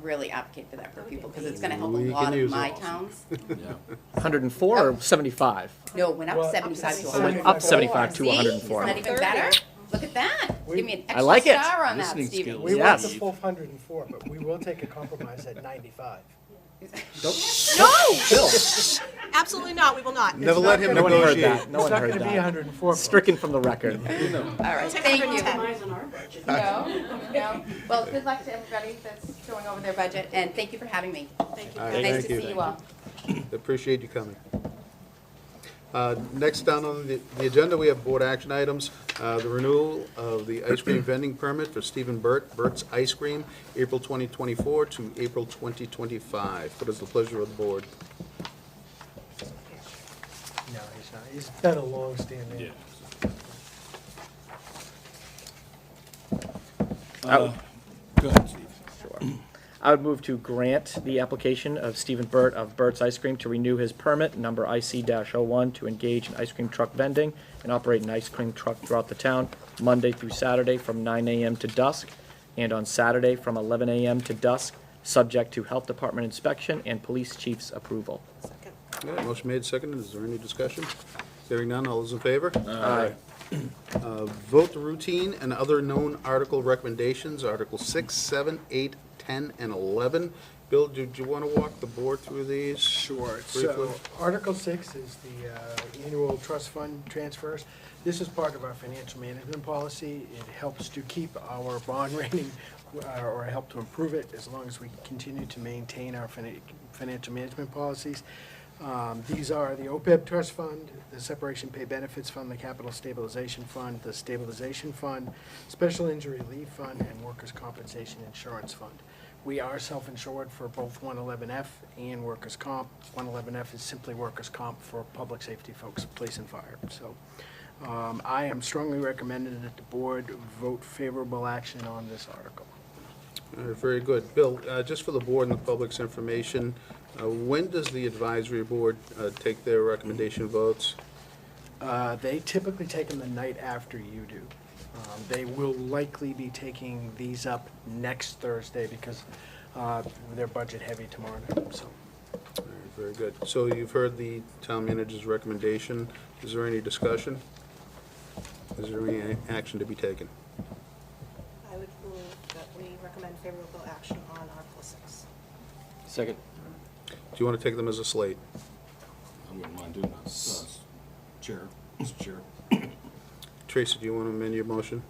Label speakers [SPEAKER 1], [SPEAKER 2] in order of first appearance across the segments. [SPEAKER 1] really advocate for that for people, because it's
[SPEAKER 2] amazing.
[SPEAKER 1] gonna help a
[SPEAKER 3] We can
[SPEAKER 1] lot of
[SPEAKER 3] use
[SPEAKER 1] my
[SPEAKER 3] it.
[SPEAKER 1] towns.
[SPEAKER 4] Yeah.
[SPEAKER 5] 104 or 75?
[SPEAKER 1] No, went up seventy-five to
[SPEAKER 5] So
[SPEAKER 1] hundred.
[SPEAKER 5] went up 75 to
[SPEAKER 1] See, it's
[SPEAKER 5] 104.
[SPEAKER 1] not even better, look at that, give me an
[SPEAKER 5] I like
[SPEAKER 1] extra
[SPEAKER 5] it.
[SPEAKER 1] star on that,
[SPEAKER 4] Listening
[SPEAKER 1] Stephen.
[SPEAKER 4] skills.
[SPEAKER 6] We want the
[SPEAKER 5] Yes.
[SPEAKER 6] full hundred and four, but we will take a compromise at ninety-five.
[SPEAKER 2] No,
[SPEAKER 5] Bill,
[SPEAKER 2] absolutely not, we will not.
[SPEAKER 3] Never let him
[SPEAKER 5] no one heard
[SPEAKER 3] negotiate.
[SPEAKER 5] that. No one heard
[SPEAKER 6] It's not gonna be
[SPEAKER 5] that.
[SPEAKER 6] hundred and four.
[SPEAKER 5] Stricken from the record.
[SPEAKER 1] All right,
[SPEAKER 2] Take
[SPEAKER 1] thank you.
[SPEAKER 2] 110.
[SPEAKER 1] No, no, well, good luck to everybody that's going over their budget, and thank you for having me.
[SPEAKER 2] Thank you.
[SPEAKER 3] All right,
[SPEAKER 1] Nice
[SPEAKER 3] thank
[SPEAKER 1] to see you all.
[SPEAKER 3] Appreciate you coming. Uh, Next down on the the agenda, we have board action items. Uh, The renewal of the ice cream vending permit for Stephen Burt, Burt's Ice Cream, April 2024 to April 2025. What is the pleasure of the board?
[SPEAKER 6] No, he's not. He's been a long-standing.
[SPEAKER 5] I-
[SPEAKER 4] Uh, Go ahead, Steve.
[SPEAKER 5] I would move to grant the application of Stephen Burt of Burt's Ice Cream to renew his permit, number IC-01, to engage in ice cream truck vending and operate an ice cream truck throughout the town, Monday through Saturday from 9 AM to dusk, and on Saturday from 11 AM to dusk, subject to Health Department inspection and Police Chief's approval.
[SPEAKER 2] Second.
[SPEAKER 3] All right, Motion made, seconded. Is there any discussion? Hearing none, all those in favor? Uh,
[SPEAKER 5] Aye.
[SPEAKER 3] Vote the routine and other known article recommendations, Article 6, 7, 8, 10, and 11. Bill, did you want to walk the board through these?
[SPEAKER 6] Sure.
[SPEAKER 3] Briefly.
[SPEAKER 6] So Article Six is the uh, annual trust fund transfers. This is part of our financial management policy. It helps to keep our bond rating uh, or help to improve it as long as we continue to maintain our finan- financial management policies. Um, These are the OPEB trust fund, the separation pay benefits fund, the capital stabilization fund, the stabilization fund, special injury leave fund, and workers' compensation insurance fund. We are self-insured for both 111F and workers' comp. 111F is simply workers' comp for public safety folks, police and fire. So um, I am strongly recommending that the board vote favorable action on this article.
[SPEAKER 3] All right, Very good. Bill, uh, just for the board and the public's information, uh, when does the advisory board uh, take their recommendation votes?
[SPEAKER 6] Uh, They typically take them the night after you do. Um, They will likely be taking these up next Thursday because uh, they're budget heavy tomorrow night, so.
[SPEAKER 3] All right, Very good. So you've heard the town manager's recommendation. Is there any discussion? Is there any action to be taken?
[SPEAKER 2] I would move that we recommend favorable action on Article 6.
[SPEAKER 5] Second.
[SPEAKER 3] Do you want to take them as a slate?
[SPEAKER 4] I wouldn't mind doing that. Uh, Chair, Mr. Chair.
[SPEAKER 3] Tracy, do you want to amend your motion?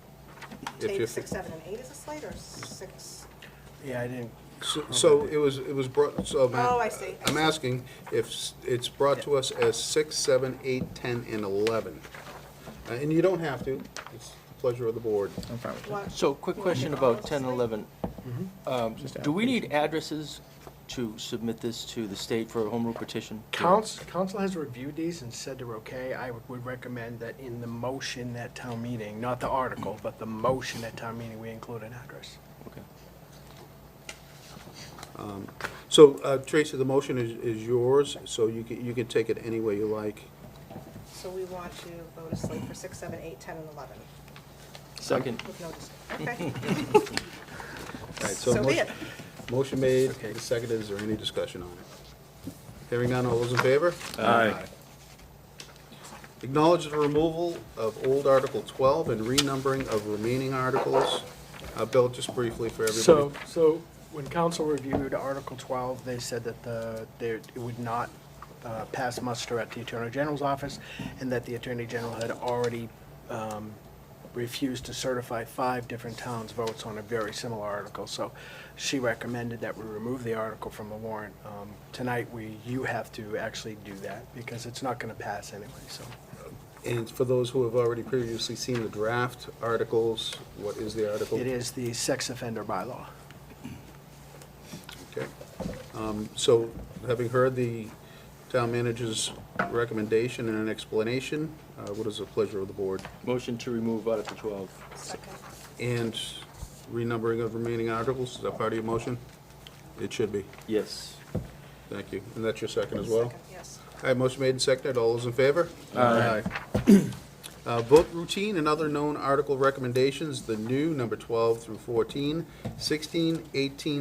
[SPEAKER 3] If you-
[SPEAKER 2] Take 6, 7, and 8 as a slate, or 6?
[SPEAKER 6] Yeah, I didn't,
[SPEAKER 3] So- So it was, it was brought, so. I'm-
[SPEAKER 2] Oh, I see.
[SPEAKER 3] I'm asking if s- it's brought to us as six, seven, eight, ten, and 11. Uh, And you don't have to. It's the pleasure of the board.
[SPEAKER 5] I'm fine with that.
[SPEAKER 2] What?
[SPEAKER 7] So, quick question about 10 and 11. Um, Do we need addresses to submit this to the state for a home rule petition?
[SPEAKER 6] council, council has reviewed these and said they're okay. I would recommend that in the motion at town meeting, not the article, but the motion at town meeting, we include an address.
[SPEAKER 7] Okay.
[SPEAKER 3] So uh, Tracy, the motion is, is yours, so you can, you can take it any way you like.
[SPEAKER 2] So we want to vote a slate for 6, 7, 8, 10, and 11,
[SPEAKER 7] Second.
[SPEAKER 2] with no discussion. Okay,
[SPEAKER 3] All right,
[SPEAKER 2] so be
[SPEAKER 3] motion-
[SPEAKER 2] it.
[SPEAKER 3] Motion made, and seconded. Is there any discussion on it? Hearing none, all those in favor?
[SPEAKER 4] Aye.
[SPEAKER 3] Acknowledge the removal of old Article 12 and renumbering of remaining articles. Uh, Bill, just briefly for everybody.
[SPEAKER 6] So, so when council reviewed Article 12, they said that the, there, it would not uh, pass muster at the Attorney General's office, and that the Attorney General had already um, refused to certify five different towns' votes on a very similar article. So she recommended that we remove the article from the warrant. Um, Tonight, we, you have to actually do that, because it's not going to pass anyway, so.
[SPEAKER 3] And for those who have already previously seen the draft articles, what is the article?
[SPEAKER 6] It is the sex offender bylaw.
[SPEAKER 3] Okay. Um, So having heard the town manager's recommendation and an explanation, uh, what is the pleasure of the board?
[SPEAKER 7] Motion to remove Article 12.
[SPEAKER 2] Second.
[SPEAKER 3] And renumbering of remaining articles, is that part of your motion? It should be.
[SPEAKER 7] Yes.
[SPEAKER 3] Thank you. And that's your second as well?
[SPEAKER 2] Second, Yes.
[SPEAKER 3] All right, motion made and seconded. All those in favor? Aye. Uh, Vote routine and other known article recommendations, the new number 12 through 14, 16, 18,